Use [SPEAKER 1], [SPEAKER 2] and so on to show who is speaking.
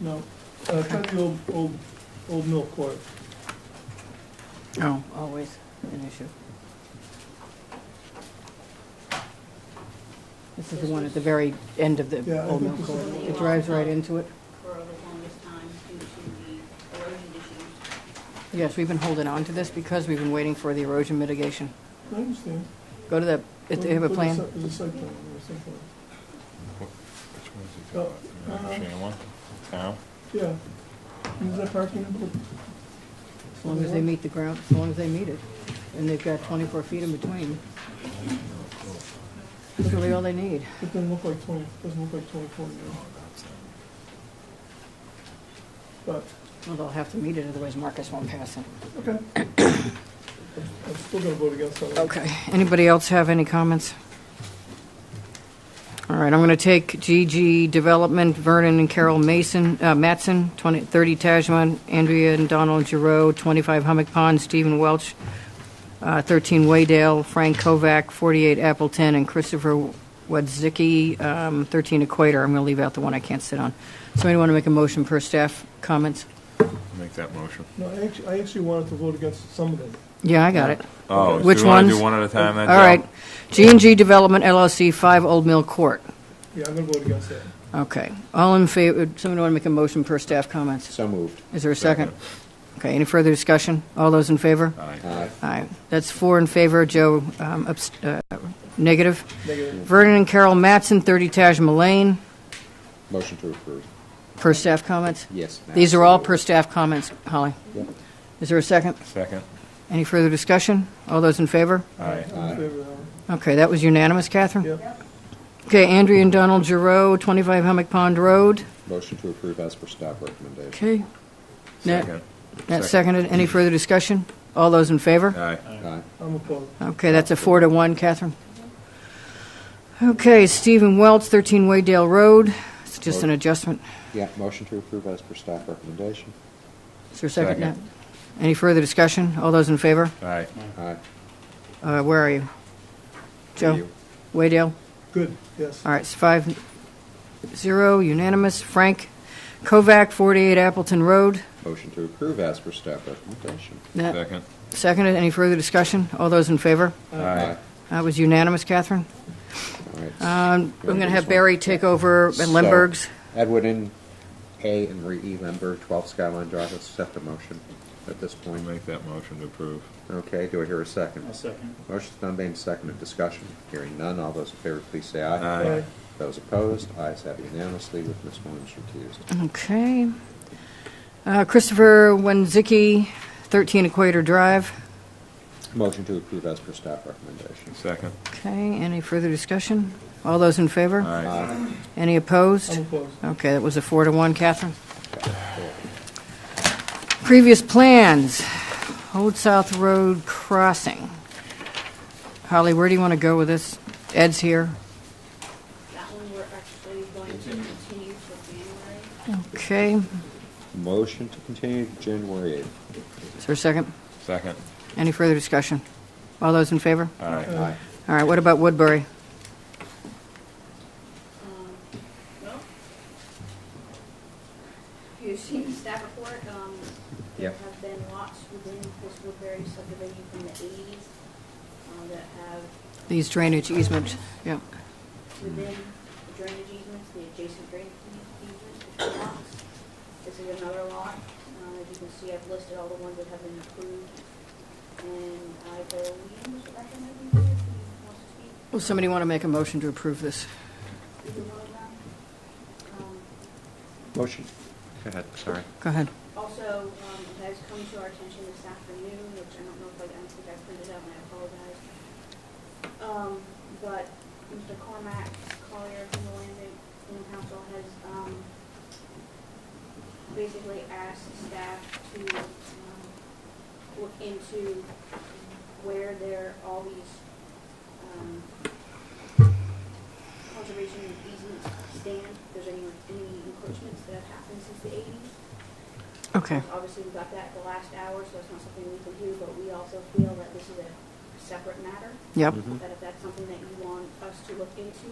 [SPEAKER 1] No, uh, try the old, old, old mill court.
[SPEAKER 2] Oh, always an issue. This is the one at the very end of
[SPEAKER 1] Yeah,
[SPEAKER 2] the
[SPEAKER 1] I
[SPEAKER 2] Old
[SPEAKER 1] think
[SPEAKER 2] Mill
[SPEAKER 1] this
[SPEAKER 2] Court.
[SPEAKER 1] is-
[SPEAKER 2] It drives right into it.
[SPEAKER 3] for the longest time due to the erosion issues.
[SPEAKER 2] Yes, we've been holding on to this because we've been waiting for the erosion mitigation.
[SPEAKER 1] I understand.
[SPEAKER 2] Go to the, if they have a
[SPEAKER 1] There's
[SPEAKER 2] plan.
[SPEAKER 1] There's a site plan, there's a site plan.
[SPEAKER 4] Which one's he
[SPEAKER 1] Oh,
[SPEAKER 4] talking about?
[SPEAKER 1] uh-huh.
[SPEAKER 4] The Shane one? Town?
[SPEAKER 1] Yeah. Is that parking?
[SPEAKER 2] As long as they meet the ground, as long as they meet it. And they've got 24 feet in between. That's really all they need.
[SPEAKER 1] It doesn't look like twenty, doesn't look like twenty-four
[SPEAKER 4] Oh,
[SPEAKER 1] now. But,
[SPEAKER 2] Well, they'll have to meet it, otherwise Marcus won't pass it.
[SPEAKER 1] okay. I'm still gonna vote against that. one.
[SPEAKER 2] Okay, anybody else have any comments? All right, I'm going to take GG Development, Vernon and Carol Mason, uh, Mattson, 20 30 Tajman, Andrea and Donald Giroux, 25 Hummock Pond, Stephen Welch, uh, 13 Waydale, Frank Kovac, 48 Appleton, and Christopher Wadzicki, um 13 Equator. I'm going to leave out the one I can't sit on. Somebody want to make a motion per staff comments?
[SPEAKER 4] Make that motion.
[SPEAKER 1] No, I actually, I actually wanted to vote against some of them.
[SPEAKER 2] Yeah, I got it.
[SPEAKER 4] Oh, so
[SPEAKER 2] Which
[SPEAKER 4] you want to
[SPEAKER 2] ones?
[SPEAKER 4] do one at a time then?
[SPEAKER 2] All
[SPEAKER 4] Joe?
[SPEAKER 2] right. G and G Development LLC, 5 Old Mill Court.
[SPEAKER 1] Yeah, I'm gonna vote against that.
[SPEAKER 2] Okay. All in favor, someone want to make a motion per staff comments?
[SPEAKER 5] So moved.
[SPEAKER 2] Is there a second? Okay, any further discussion? All those in favor?
[SPEAKER 4] Aye.
[SPEAKER 5] Aye.
[SPEAKER 2] Aye. That's four in favor, Joe, um, abs- uh, negative.
[SPEAKER 1] Negative.
[SPEAKER 2] Vernon and Carol Mattson, 30 Tajma Lane,
[SPEAKER 5] Motion to approve.
[SPEAKER 2] per staff comments?
[SPEAKER 5] Yes.
[SPEAKER 2] These are all per
[SPEAKER 5] absolutely.
[SPEAKER 2] staff comments, Holly.
[SPEAKER 5] Yep.
[SPEAKER 2] Is there a second?
[SPEAKER 4] Second?
[SPEAKER 2] Any further discussion? All those in favor?
[SPEAKER 4] Aye.
[SPEAKER 1] I'm in favor of that one.
[SPEAKER 2] Okay, that was unanimous, Catherine?
[SPEAKER 1] Yeah,
[SPEAKER 2] Okay, Andrea and Donald Giroux, 25 Hummock Pond Road.
[SPEAKER 5] Motion to approve as per staff recommendation.
[SPEAKER 2] Okay. Nat-
[SPEAKER 4] Second?
[SPEAKER 2] Nat seconded. Any further discussion? All those in favor?
[SPEAKER 4] Aye.
[SPEAKER 5] Aye.
[SPEAKER 1] I'm opposed.
[SPEAKER 2] Okay, that's a four to one, Catherine. Okay, Stephen Welch, 13 Waydale Road. It's just an adjustment.
[SPEAKER 5] Yeah, motion to approve as per staff recommendation.
[SPEAKER 2] Is there a second?
[SPEAKER 4] Second.
[SPEAKER 2] Nat? Any further discussion? All those in favor?
[SPEAKER 4] Aye.
[SPEAKER 5] Aye.
[SPEAKER 2] Uh, Where are you? Joe?
[SPEAKER 5] You.
[SPEAKER 2] Waydale?
[SPEAKER 1] Good, yes.
[SPEAKER 2] All right, it's five, zero, unanimous. Frank Kovac, 48 Appleton Road.
[SPEAKER 5] Motion to approve as per staff recommendation.
[SPEAKER 2] Nat
[SPEAKER 4] Second?
[SPEAKER 2] Seconded. Any further discussion? All those in favor?
[SPEAKER 4] Aye.
[SPEAKER 2] That was unanimous, Catherine.
[SPEAKER 5] All right.
[SPEAKER 2] Um, I'm
[SPEAKER 5] wanna
[SPEAKER 2] going to
[SPEAKER 5] do
[SPEAKER 2] have
[SPEAKER 5] this one?
[SPEAKER 2] Barry take over at
[SPEAKER 5] So,
[SPEAKER 2] Lemberg's.
[SPEAKER 5] Edward and A. and Re. E. Lemberg, 12 Skyline Drive, accept the motion at this
[SPEAKER 4] We
[SPEAKER 5] point.
[SPEAKER 4] make that motion to approve.
[SPEAKER 5] Okay, do I hear a 2nd
[SPEAKER 6] I'll second.
[SPEAKER 5] Motion's been made and seconded. Discussion. Hearing none. All those in favor, please say aye.
[SPEAKER 4] Aye.
[SPEAKER 1] Aye.
[SPEAKER 5] Those opposed, ayes have unanimously with Ms. Williams recused.
[SPEAKER 2] Okay. Uh, Christopher Wenzicki, 13 Equator Drive.
[SPEAKER 5] Motion to approve as per staff recommendation.
[SPEAKER 4] Second?
[SPEAKER 2] Okay, any further discussion? All those in favor?
[SPEAKER 4] Aye.
[SPEAKER 2] Any
[SPEAKER 1] I'm
[SPEAKER 2] opposed?
[SPEAKER 1] opposed.
[SPEAKER 2] Okay, that was a four to one, Catherine. Previous plans, Old South Road Crossing. Holly, where do you want to go with this? Ed's here.
[SPEAKER 3] That one we're actually going to continue till January.
[SPEAKER 2] Okay,
[SPEAKER 5] Motion to continue to January 8th.
[SPEAKER 2] is there a second?
[SPEAKER 4] Second?
[SPEAKER 2] Any further discussion? All those in favor?
[SPEAKER 4] Aye.
[SPEAKER 5] Aye.
[SPEAKER 2] All right, what about Woodbury?
[SPEAKER 3] Um, Well, if you've seen the staff report, um, there
[SPEAKER 5] Yep.
[SPEAKER 3] have been lots within this Woodbury subdivision from the eighties uh, that have
[SPEAKER 2] These drainage easements, yeah.
[SPEAKER 3] within the drainage easements, the adjacent drainage easements, the two lots. This is another lot. Uh, As you can see, I've listed all the ones that have been approved. And I believe Mr. Becker may be here if he wants to speak.
[SPEAKER 2] Will somebody want to make a motion to approve this?
[SPEAKER 3] Either one of them. Um,
[SPEAKER 5] Motion. Go ahead, sorry.
[SPEAKER 2] Go ahead.
[SPEAKER 3] Also, um, it has come to our attention this afternoon, which I don't know if I, I don't think I printed out and I apologize. Um, But Mr. Cormac Collier from the Land Bank Land Council has um, basically asked staff to um, look into where there, all these um, conservation easements stand, if there's any any encroachments that have happened since the eighties.
[SPEAKER 2] Okay,
[SPEAKER 3] Obviously, we got that at the last hour, so it's not something we can do, but we also feel that this is a separate matter,
[SPEAKER 2] yep.
[SPEAKER 3] that if that's something that you want us to look into,